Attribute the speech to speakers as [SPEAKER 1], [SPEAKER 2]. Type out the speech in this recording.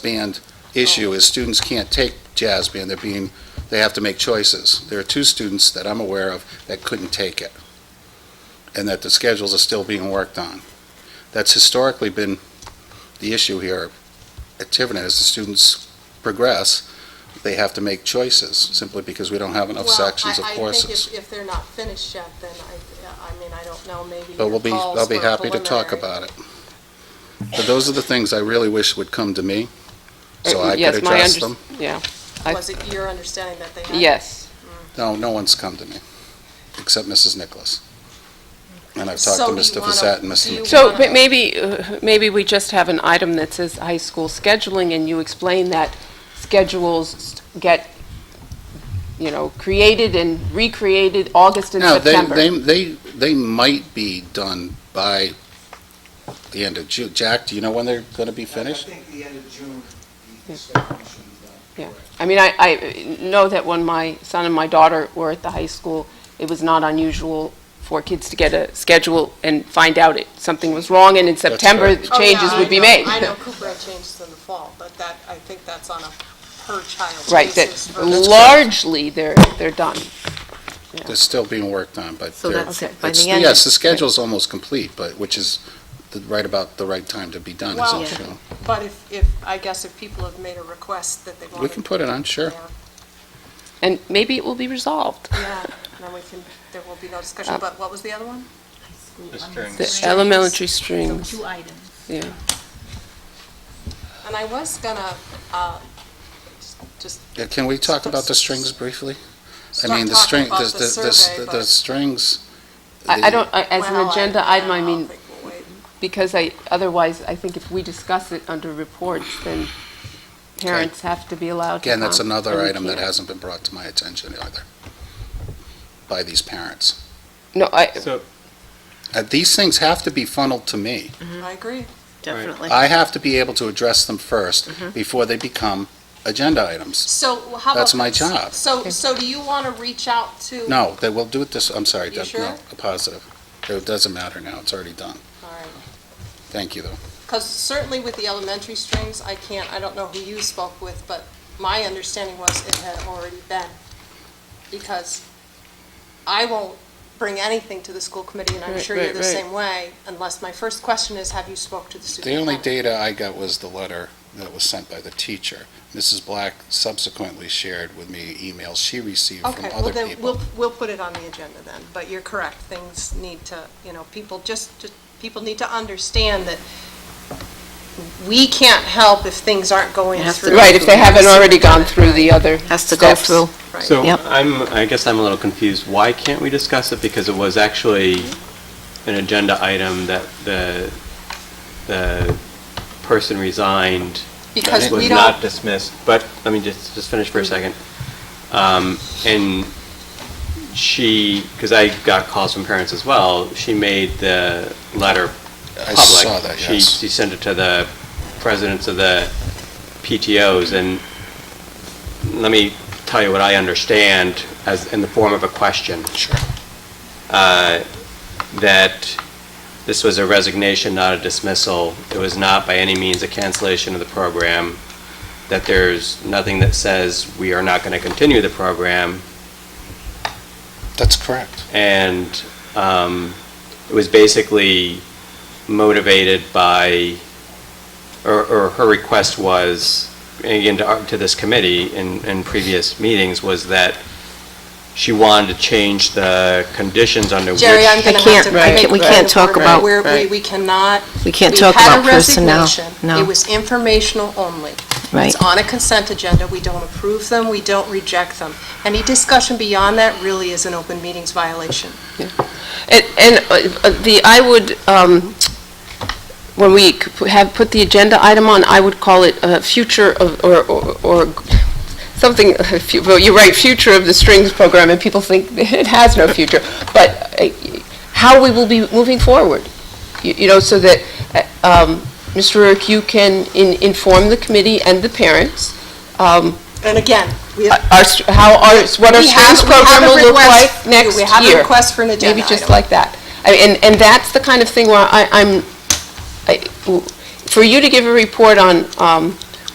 [SPEAKER 1] band issue is students can't take jazz band. They're being, they have to make choices. There are two students that I'm aware of that couldn't take it, and that the schedules are still being worked on. That's historically been the issue here at Tiverton. As the students progress, they have to make choices simply because we don't have enough sections of
[SPEAKER 2] Well, I- I
[SPEAKER 1] courses.
[SPEAKER 2] think if- if they're not finished yet, then I, I mean, I don't know, maybe
[SPEAKER 1] But we'll
[SPEAKER 2] your
[SPEAKER 1] be, I'll
[SPEAKER 2] calls
[SPEAKER 1] be
[SPEAKER 2] for
[SPEAKER 1] happy to talk about
[SPEAKER 2] preliminary-
[SPEAKER 1] it. But those are the things I really wish would come to me, so I could
[SPEAKER 3] Uh, Eh, Yes, my
[SPEAKER 1] address
[SPEAKER 3] unders-
[SPEAKER 1] them.
[SPEAKER 3] Yeah, I-
[SPEAKER 2] Was it your understanding that they had?
[SPEAKER 3] yes.
[SPEAKER 1] No, no one's come to me, except Mrs. Nicholas. And I've talked to
[SPEAKER 2] So do
[SPEAKER 1] Mr.
[SPEAKER 2] you wanna-
[SPEAKER 1] Fasette and
[SPEAKER 2] do
[SPEAKER 1] Mr.
[SPEAKER 2] you
[SPEAKER 1] McKee.
[SPEAKER 3] So
[SPEAKER 2] wanna-
[SPEAKER 3] but maybe, uh, maybe we just have an item that says high school scheduling, and you explain that schedules get, you know, created and recreated August and
[SPEAKER 1] No, they, they,
[SPEAKER 3] September.
[SPEAKER 1] they, they might be done by the end of June. Jack, do you know when they're gonna be finished?
[SPEAKER 4] I think the end of June,
[SPEAKER 3] Yeah.
[SPEAKER 4] the second should be done.
[SPEAKER 3] Yeah.
[SPEAKER 4] Correct.
[SPEAKER 3] I mean, I, I know that when my son and my daughter were at the high school, it was not unusual for kids to get a schedule and find out it, something was wrong, and in September,
[SPEAKER 1] correct.
[SPEAKER 2] Oh, yeah,
[SPEAKER 3] changes
[SPEAKER 2] I
[SPEAKER 3] would be
[SPEAKER 2] know-
[SPEAKER 3] made.
[SPEAKER 2] I know Cooper changes in the fall, but that, I think that's on a per-child
[SPEAKER 3] Right,
[SPEAKER 2] basis.
[SPEAKER 3] that
[SPEAKER 2] versus-
[SPEAKER 3] largely they're, they're done.
[SPEAKER 1] They're still being worked on, but
[SPEAKER 5] So
[SPEAKER 1] they're.
[SPEAKER 5] that's it, by
[SPEAKER 1] it's-
[SPEAKER 5] the end-
[SPEAKER 1] Yes, the schedule's almost complete, but, which is the, right about the right time to be done,
[SPEAKER 2] Well-
[SPEAKER 1] isn't it?
[SPEAKER 2] But if, if, I guess if people have made a request that they want.
[SPEAKER 1] We can put it on, sure.
[SPEAKER 3] And maybe it will be resolved.
[SPEAKER 2] Yeah, then we can, there will be no discussion,
[SPEAKER 3] Uh,
[SPEAKER 2] but what was the other one?
[SPEAKER 3] The elementary strings,
[SPEAKER 5] Two items.
[SPEAKER 3] yeah.
[SPEAKER 2] And I was gonna, uh, just
[SPEAKER 1] Yeah, Can we talk about the strings briefly? I
[SPEAKER 2] start
[SPEAKER 1] mean, the
[SPEAKER 2] talking
[SPEAKER 1] string,
[SPEAKER 2] about
[SPEAKER 1] the,
[SPEAKER 2] the
[SPEAKER 1] the,
[SPEAKER 2] survey,
[SPEAKER 1] the- the
[SPEAKER 2] but.
[SPEAKER 1] strings.
[SPEAKER 3] I, I don't, I- as an
[SPEAKER 2] Well, I- um,
[SPEAKER 3] agenda item, I
[SPEAKER 2] I'll
[SPEAKER 3] mean,
[SPEAKER 2] think we'll wait.
[SPEAKER 3] because I, otherwise, I think if we discuss it under reports, then parents have to be allowed to
[SPEAKER 1] Again, that's
[SPEAKER 3] comment,
[SPEAKER 1] another
[SPEAKER 3] and we
[SPEAKER 1] item that
[SPEAKER 3] can't.
[SPEAKER 1] hasn't been brought to my attention either by these parents.
[SPEAKER 3] No, I,
[SPEAKER 6] So,
[SPEAKER 1] Uh, These things have to be funneled to me.
[SPEAKER 2] I agree.
[SPEAKER 5] Definitely.
[SPEAKER 1] I have to be able to address them first
[SPEAKER 2] Mm-hmm.
[SPEAKER 1] before they become agenda items.
[SPEAKER 2] So how about?
[SPEAKER 1] That's my
[SPEAKER 2] this?
[SPEAKER 1] job.
[SPEAKER 2] So, so do you want to reach out to?
[SPEAKER 1] No, they will do it this, I'm sorry,
[SPEAKER 2] You
[SPEAKER 1] Deb,
[SPEAKER 2] sure?
[SPEAKER 1] no, a positive. It doesn't matter now, it's already done. Thank you, though.
[SPEAKER 2] Because certainly with the elementary strings, I can't, I don't know who you spoke with, but my understanding was it had already been. Because I won't bring anything to the school committee, and I'm
[SPEAKER 3] Right,
[SPEAKER 2] sure you're
[SPEAKER 3] right,
[SPEAKER 2] the
[SPEAKER 3] right.
[SPEAKER 2] same way, unless my first question is, have you spoke to the
[SPEAKER 1] The only
[SPEAKER 2] superintendent?
[SPEAKER 1] data I got was the letter that was sent by the teacher. Mrs. Black subsequently shared with me emails she received from
[SPEAKER 2] Okay, well
[SPEAKER 1] other
[SPEAKER 2] then, we'll,
[SPEAKER 1] people.
[SPEAKER 2] we'll put it on the agenda then, but you're correct, things need to, you know, people just, just- people need to understand that we can't help if things aren't going
[SPEAKER 5] It has to
[SPEAKER 2] through.
[SPEAKER 5] go
[SPEAKER 3] right, if they haven't already gone through the other
[SPEAKER 5] Has to go
[SPEAKER 3] steps.
[SPEAKER 5] through.
[SPEAKER 2] Right.
[SPEAKER 6] so
[SPEAKER 5] Yep.
[SPEAKER 6] I'm, I guess I'm a little confused. Why can't we discuss it? Because it was actually an agenda item that the, the person resigned.
[SPEAKER 2] Because we
[SPEAKER 6] Was
[SPEAKER 2] don't.
[SPEAKER 6] not dismissed, but let me just, just finish for a second. Um, and she, because I got calls from parents as well, she made the letter
[SPEAKER 1] I
[SPEAKER 6] public.
[SPEAKER 1] saw that,
[SPEAKER 6] She,
[SPEAKER 1] yes.
[SPEAKER 6] she sent it to the presidents of the PTOs, and let me tell you what I understand as, in the form of a question.
[SPEAKER 1] Sure.
[SPEAKER 6] Uh, That this was a resignation, not a dismissal. It was not by any means a cancellation of the program. That there's nothing that says we are not going to continue the program.
[SPEAKER 1] That's correct.
[SPEAKER 6] And um, it was basically motivated by, or, or her request was, and again, to, our- to this committee in, in previous meetings, was that she wanted to change the conditions under which.
[SPEAKER 2] Jerry, I'm going to have
[SPEAKER 5] can't-
[SPEAKER 2] to.
[SPEAKER 5] right,
[SPEAKER 2] make
[SPEAKER 5] we
[SPEAKER 2] you
[SPEAKER 5] can't
[SPEAKER 2] go
[SPEAKER 5] talk
[SPEAKER 2] over
[SPEAKER 5] about-
[SPEAKER 2] Where we,
[SPEAKER 3] right.
[SPEAKER 2] we cannot.
[SPEAKER 5] We can't
[SPEAKER 2] we
[SPEAKER 5] talk
[SPEAKER 2] had a
[SPEAKER 5] about personnel.
[SPEAKER 2] resignation. It
[SPEAKER 5] No,
[SPEAKER 2] was informational only.
[SPEAKER 5] right.
[SPEAKER 2] It's on a consent agenda. We don't approve them, we don't reject them. Any discussion beyond that really is an open meetings violation.
[SPEAKER 3] And, and uh, uh, the, I would, um, when we c- p- have put the agenda item on, I would call it uh future of, or, or- or something, fu- well, you're right, future of the strings program, and people think it has no future, but uh, how we will be moving forward, you you know, so that, uh, um, Mr. Rourke, you can in- inform the committee and the parents, um,
[SPEAKER 2] And again, we
[SPEAKER 3] uh,
[SPEAKER 2] have.
[SPEAKER 3] our, st- how our, what our
[SPEAKER 2] we have-
[SPEAKER 3] strings
[SPEAKER 2] we have
[SPEAKER 3] program
[SPEAKER 2] a
[SPEAKER 3] will look like
[SPEAKER 2] request-
[SPEAKER 3] next
[SPEAKER 2] We
[SPEAKER 3] year.
[SPEAKER 2] have a request for an agenda
[SPEAKER 3] Maybe just
[SPEAKER 2] item.
[SPEAKER 3] like that. I- And, and that's the kind of thing where I, I'm, I- for you to give a report on um,